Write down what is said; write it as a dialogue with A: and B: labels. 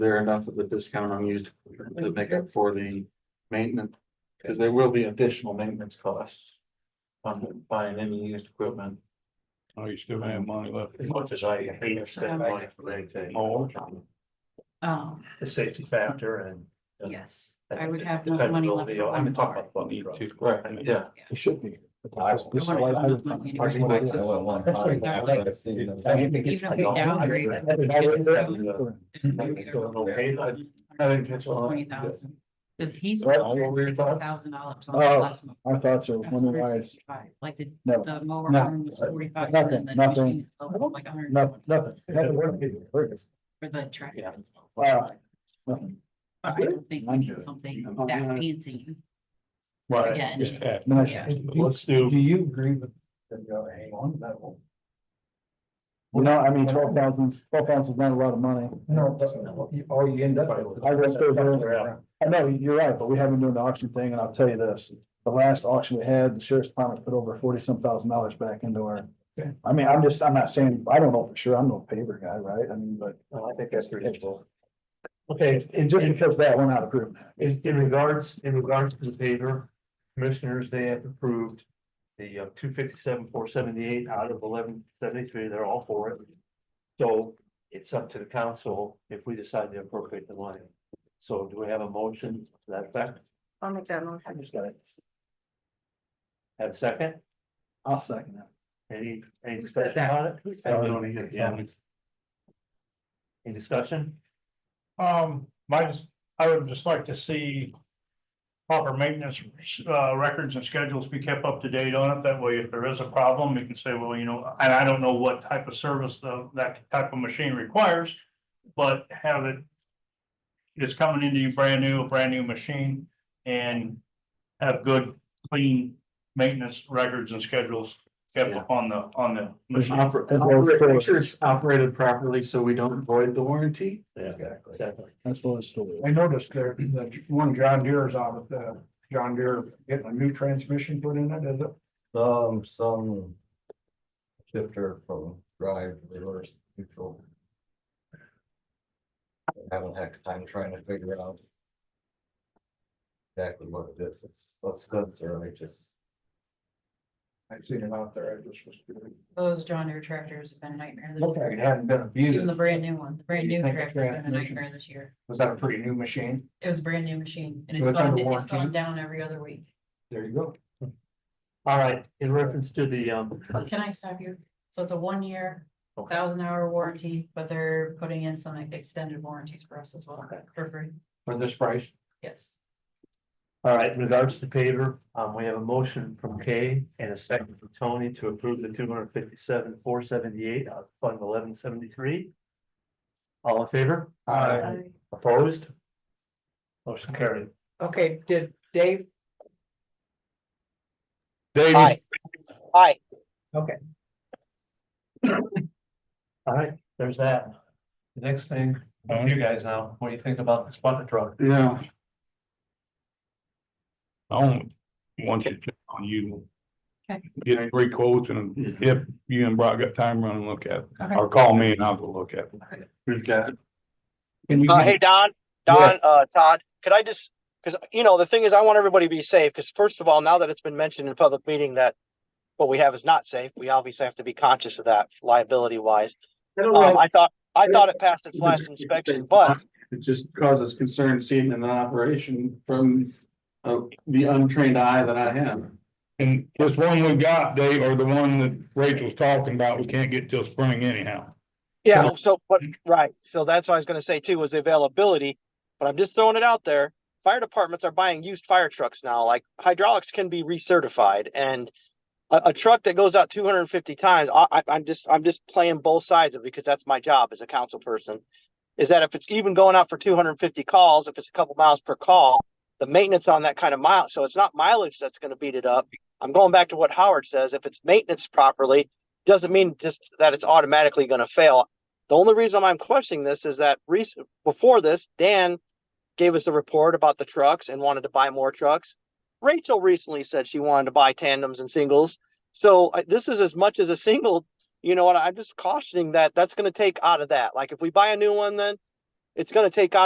A: there enough of the discount I'm used to make up for the maintenance. Because there will be additional maintenance costs on buying any used equipment.
B: Oh, you still have money left.
A: As much as I hate to
C: Um,
A: spend money for anything.
B: Oh,
C: Oh,
A: The safety factor and.
C: yes, I would have no money left for
A: I'm
C: one
A: talking
C: car.
A: about
B: Me
A: truck.
B: too.
A: Right, yeah.
D: It should be.
C: I wanna go with money to replace it. Even if we downgrade it.
A: It's going okay, I- I didn't catch all of it.
C: Twenty thousand, because he's
D: Well, what were your
C: sixty
D: thoughts?
C: thousand dollars on
D: Oh,
C: the last one.
D: I thought so,
C: That's
D: wondering why it's
C: 165. Like the,
D: No.
C: the mower
D: Oh, No.
C: arm was forty-five.
D: Nothing,
C: and the
D: nothing.
C: machine itself was Like a hundred and
D: nothing,
C: twenty
D: nothing, nothing. working.
C: for the tractor.
A: Yeah.
C: itself.
D: Wow.
C: But I don't think we need something
A: I'm
C: that
A: not-
C: fancy
A: Right.
C: again.
B: Just half.
D: Nice.
C: Yeah.
A: Let's do.
D: Do you agree with? You know, I mean, twelve thousand, twelve thousand is not a lot of money.
E: No, that's, all you end up with.
D: I guess they're doing- I know, you're right, but we haven't been doing the auction thing, and I'll tell you this, the last auction we had, the sheriff's department put over forty some thousand dollars back into our.
A: Okay.
D: I mean, I'm just, I'm not saying, I don't know for sure, I'm no paper guy, right? I mean, but
A: I think that's reasonable.
E: Okay,
D: and just because that went out of group.
A: Is in regards, in regards to the paper, commissioners, they have approved. The uh, two fifty-seven, four seventy-eight out of eleven seventy-three, they're all for it. So it's up to the council if we decide to appropriate the money. So do we have a motion to that effect?
F: I'll make that motion.
A: Have a second?
D: I'll second that.
A: Any, any
F: Who said
A: discussion on it?
F: Who said
A: I don't hear it, yeah. Any discussion?
E: um, my, just- I would just like to see. Proper maintenance, uh, records and schedules be kept up to date on it. That way, if there is a problem, you can say, well, you know, and I don't know what type of service uh, that type of machine requires. But have it. It's coming into you brand new, a brand new machine and have good, clean maintenance records and schedules. Kept
A: Yeah.
E: on the, on the machine.
A: Make sure
D: That's
A: it's operated properly so we don't void the warranty. Yeah,
D: Exactly.
A: exactly.
D: what it's story.
G: I noticed that, that one John Deere is out of the, John Deere getting a new transmission put in it, is it?
H: Some, some. Shifter from drive to reverse neutral. I'm Having a heck of a time trying to figure out. Exactly what it is, it's, that's sensor, I just,
G: I've seen it out there, I just was. curious.
C: Those John Deere tractors have been a nightmare. this
G: Looked like it
C: year.
G: hadn't been abused.
C: Even the brand new one, the brand
G: You
C: new
G: think the
C: tractor has been a
G: transmission-
C: nightmare this year.
G: Was that a pretty new machine?
C: It was a brand new machine and
G: So it's
C: it's gone,
G: under
C: it's gone
G: warranty?
C: down every other week.
G: There you go.
A: All right, in reference to the um,
C: Can I stop you? So it's a one-year,
A: Okay.
C: thousand hour warranty, but they're putting in some extended warranties for us as well,
A: Okay.
C: for free,
A: for this price,
C: yes.
A: All right, in regards to paver, um, we have a motion from Kay and a second from Tony to approve the two hundred fifty-seven, four seventy-eight out of fund uh, eleven seventy-three. All in favor?
G: Aye.
A: Opposed? Motion carried.
F: Okay, did Dave?
B: David,
A: All right, there's that. The next thing, up to you guys now, what do you think about this bucket truck?
B: yeah. I don't want you to, on you.
C: Okay.
B: Get three quotes and if you and Brock got time, run and look at it,
C: Okay.
B: or call me and I'll go look at it.
A: We've got.
B: Can you
I: Uh,
B: give-
I: hey, Don, Don, uh, Todd, could I just, because, you know, the thing is, I want everybody to be safe, because first of all, now that it's been mentioned in public meeting that what we have is not safe, we obviously have to be conscious of that liability wise. Um, I thought, I thought it passed its last inspection, but
A: It just causes concern seeing an operation from uh, the untrained eye that I am.
B: And this one we got, Dave, or the one that Rachel's talking about, we can't get till spring anyhow.
I: yeah, so, but, right, so that's what I was gonna say too, was the availability. But I'm just throwing it out there. Fire departments are buying used fire trucks now, like hydraulics can be recertified and a, a truck that goes out 250 times, I, I, I'm just, I'm just playing both sides of it because that's my job as a council person. Is that if it's even going out for 250 calls, if it's a couple miles per call, the maintenance on that kind of mile, so it's not mileage that's going to beat it up. I'm going back to what Howard says. If it's maintenance properly, doesn't mean just that it's automatically going to fail. The only reason I'm questioning this is that recent before this, Dan gave us a report about the trucks and wanted to buy more trucks. Rachel recently said she wanted to buy tandems and singles. So I, this is as much as a single, you know, and I'm just cautioning that that's going to take out of that. Like if we buy a new one, then it's gonna take